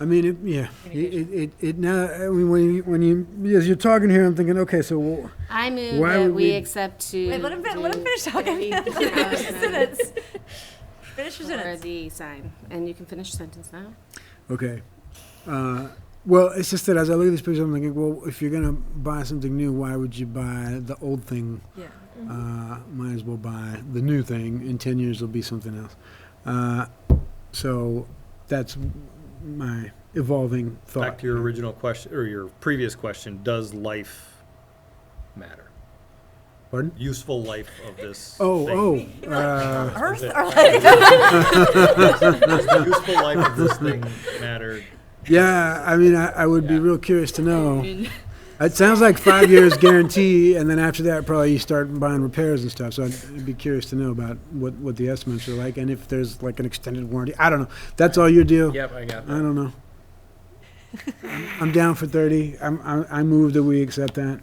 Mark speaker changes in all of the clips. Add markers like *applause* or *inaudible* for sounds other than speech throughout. Speaker 1: I mean, it, yeah, it, it, it- it now, I mean, when you, when you, as you're talking here, I'm thinking, okay, so, well,
Speaker 2: I move
Speaker 1: Why
Speaker 2: that
Speaker 1: would
Speaker 2: we
Speaker 1: we-
Speaker 2: accept to.
Speaker 3: Wait, let him, fin- let him
Speaker 2: do
Speaker 3: finish talking.
Speaker 2: the-
Speaker 3: *laughs*
Speaker 2: uh,
Speaker 3: Finish your sentence. Finish your
Speaker 2: For
Speaker 3: sentence.
Speaker 2: the sign, and you can finish the sentence now.
Speaker 1: okay. Uh, well, it's just that as I look at this picture, I'm thinking, well, if you're gonna buy something new, why would you buy the old thing?
Speaker 3: Yeah.
Speaker 1: Uh, might as well buy the new thing. In ten years, it'll be something else. Uh, so, that's my evolving thought.
Speaker 4: Back to your original question, or your previous question, does life matter?
Speaker 1: Pardon?
Speaker 4: Useful life of this
Speaker 1: Oh,
Speaker 4: thing. *laughs*
Speaker 1: oh, uh,
Speaker 3: Earth
Speaker 4: it.
Speaker 3: or like,
Speaker 4: Does the useful life of this thing matter?
Speaker 1: yeah. I mean, I, I would be
Speaker 4: Yeah.
Speaker 1: real curious to know.
Speaker 2: *laughs*
Speaker 1: It sounds like five years guarantee, and then after that, probably you start buying repairs and stuff. So I'd, I'd be curious to know about what, what the estimates are like, and if there's like an extended warranty. I don't know. That's all your deal.
Speaker 5: Yep, I got
Speaker 1: I
Speaker 5: that.
Speaker 1: don't know. I'm down for thirty. I'm, I, I move that we accept that.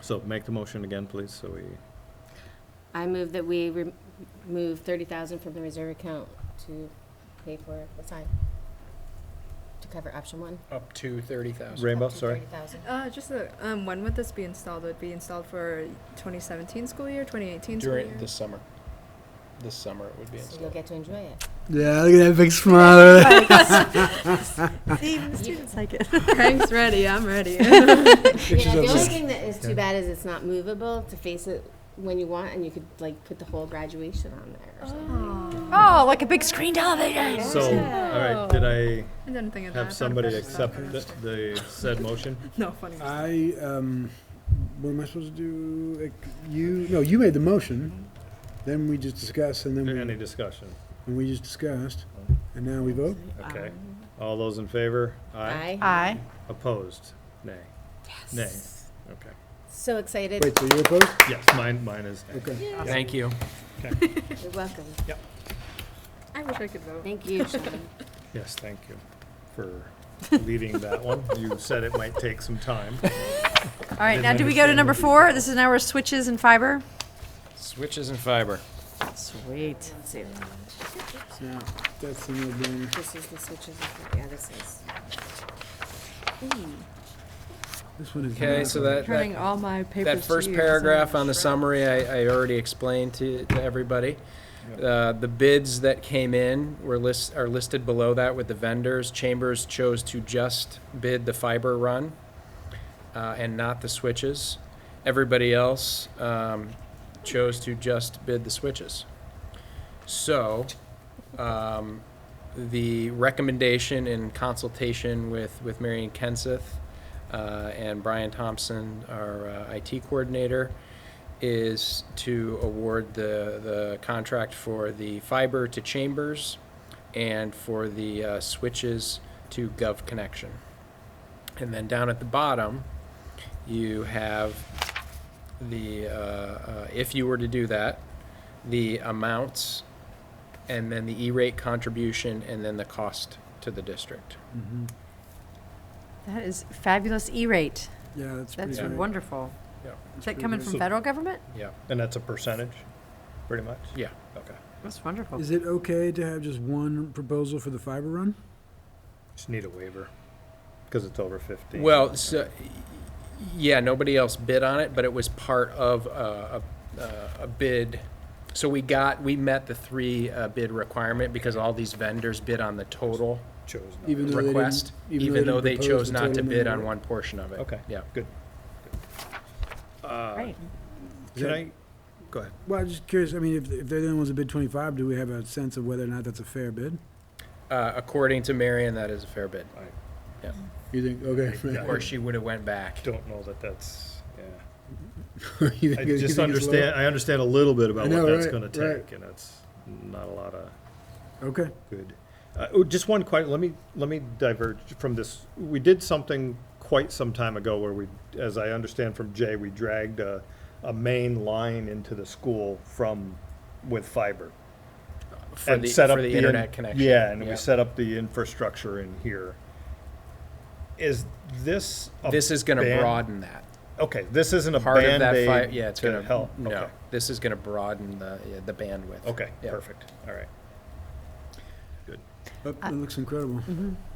Speaker 4: So make the motion again, please, so we,
Speaker 2: I move that we rem- remove thirty thousand from the reserve account to pay for the sign. To cover option one.
Speaker 5: Up to thirty thousand.
Speaker 4: Rainbow,
Speaker 2: up to
Speaker 4: sorry.
Speaker 2: 30,000.
Speaker 6: Uh, just the, um, when would this be installed? Would it be installed for 2017 school year, 2018 school year?
Speaker 5: During
Speaker 6: *laughs*
Speaker 5: the summer. This summer it would be
Speaker 2: So you'll
Speaker 5: installed.
Speaker 2: get to enjoy it.
Speaker 1: Yeah, look at that big *laughs* smile.
Speaker 6: Oh,
Speaker 3: *laughs*
Speaker 6: *laughs*
Speaker 3: see, the students like it.
Speaker 6: Crank's ready. I'm ready.
Speaker 2: Yeah, the
Speaker 1: of
Speaker 2: only
Speaker 1: us.
Speaker 2: thing that is too
Speaker 4: Yeah.
Speaker 2: bad is it's not movable to face it when you want, and you could like put the whole graduation on there or something.
Speaker 3: *laughs* Oh, like a big screen television.
Speaker 4: so, all right, did I
Speaker 6: I didn't think of that. I thought
Speaker 4: have
Speaker 6: of
Speaker 4: somebody
Speaker 6: that.
Speaker 4: accept the, the said motion?
Speaker 6: No, funny.
Speaker 1: I, um, what am I supposed to do? Like, You, no, you made the motion, then we just discuss, and then we,
Speaker 4: Any discussion?
Speaker 1: and we just discussed, and now we vote?
Speaker 4: Okay. All those in favor?
Speaker 2: Aye.
Speaker 3: Um. Aye.
Speaker 4: Opposed? Nay. Yes. Nay. Okay.
Speaker 2: So excited.
Speaker 1: Wait, so you're opposed?
Speaker 4: Yes, mine, mine is nay.
Speaker 1: Okay.
Speaker 5: Thank you.
Speaker 2: You're welcome.
Speaker 6: I wish I could vote.
Speaker 2: Thank you, Sean.
Speaker 4: Yes, thank you for leading that one. You said it might take some time.
Speaker 3: All right, now do we go to number four? This is now our switches and fiber.
Speaker 5: Switches and fiber.
Speaker 3: Sweet.
Speaker 2: Zero.
Speaker 1: So, that's the no brainer.
Speaker 2: This is the switches. Yeah, this is.
Speaker 1: This one is.
Speaker 5: Okay,
Speaker 1: not-
Speaker 5: so that,
Speaker 6: Turning
Speaker 5: that,
Speaker 6: all my papers.
Speaker 5: that
Speaker 6: to
Speaker 5: first
Speaker 6: you.
Speaker 5: paragraph on the summary, I, I already explained to, to everybody. Uh, the bids that came in were list, are listed below that with the vendors. Chambers chose to just bid the fiber run, uh, and not the switches. Everybody else, um, chose to just bid the switches. So, um, the recommendation in consultation with, with Marion Kenseth uh, and Brian Thompson, our uh, IT coordinator, is to award the, the contract for the fiber to Chambers and for the uh, switches to Gov Connection. And then down at the bottom, you have the, uh, uh, if you were to do that, the amounts and then the E-rate contribution, and then the cost to the district.
Speaker 1: Mhm.
Speaker 3: That is fabulous E-rate.
Speaker 1: Yeah, that's pretty
Speaker 3: That's
Speaker 1: great.
Speaker 3: wonderful.
Speaker 5: Yeah.
Speaker 3: Is that coming
Speaker 4: So-
Speaker 3: from federal government?
Speaker 5: Yeah,
Speaker 4: And that's a percentage, pretty much?
Speaker 5: yeah.
Speaker 4: Okay.
Speaker 3: That's wonderful.
Speaker 1: Is it okay to have just one proposal for the fiber run?
Speaker 4: Just need a waiver, because it's over 15.
Speaker 5: Well, so, yeah, nobody else bid on it, but it was part of uh, a, a, a bid. So we got, we met the three uh, bid requirement because all these vendors bid on the total
Speaker 4: Chose not.
Speaker 5: e-
Speaker 1: Even though they didn't-
Speaker 5: request, even though they
Speaker 1: didn't propose
Speaker 5: chose
Speaker 1: the
Speaker 5: not to
Speaker 1: total
Speaker 5: bid
Speaker 1: number?
Speaker 5: on one portion of it.
Speaker 4: Okay.
Speaker 5: Yeah.
Speaker 4: Good. Uh,
Speaker 3: Great.
Speaker 4: Can I, go ahead.
Speaker 1: Well, I'm just curious, I mean, if, if they're the only ones that bid twenty-five, do we have a sense of whether or not that's a fair bid?
Speaker 5: Uh, According to Marion, that is a fair bid,
Speaker 1: You think,
Speaker 4: *laughs*
Speaker 1: okay.
Speaker 5: or she would have went back.
Speaker 4: Don't know that that's, yeah.
Speaker 1: *laughs* You
Speaker 4: I
Speaker 1: think- you
Speaker 4: just
Speaker 1: think it's low?
Speaker 4: understand, I understand a little bit
Speaker 1: I
Speaker 4: about
Speaker 1: know,
Speaker 4: what that's
Speaker 1: right,
Speaker 4: gonna
Speaker 1: right.
Speaker 4: take, and that's not a lot of.
Speaker 1: Okay,
Speaker 4: Good. Uh, oh, Just one question, let me, let me diverge from this. We did something quite some time ago where we, as I understand from Jay, we dragged a, a main line into the school from, with fiber.
Speaker 5: For
Speaker 4: and
Speaker 5: the,
Speaker 4: set up
Speaker 5: for the
Speaker 4: in-
Speaker 5: internet connection.
Speaker 4: Yeah, and we set up the infrastructure in here. Is this? a
Speaker 5: This is gonna
Speaker 4: ban-
Speaker 5: broaden that.
Speaker 4: Okay, this isn't a
Speaker 5: Part of that fi-
Speaker 4: Band-Aid.
Speaker 5: yeah, it's gonna,
Speaker 4: help.
Speaker 5: no,
Speaker 4: Okay.
Speaker 5: this is gonna broaden the, yeah, the bandwidth.
Speaker 4: Okay,
Speaker 5: Yeah.
Speaker 4: perfect, all right.
Speaker 1: Oh, that looks incredible.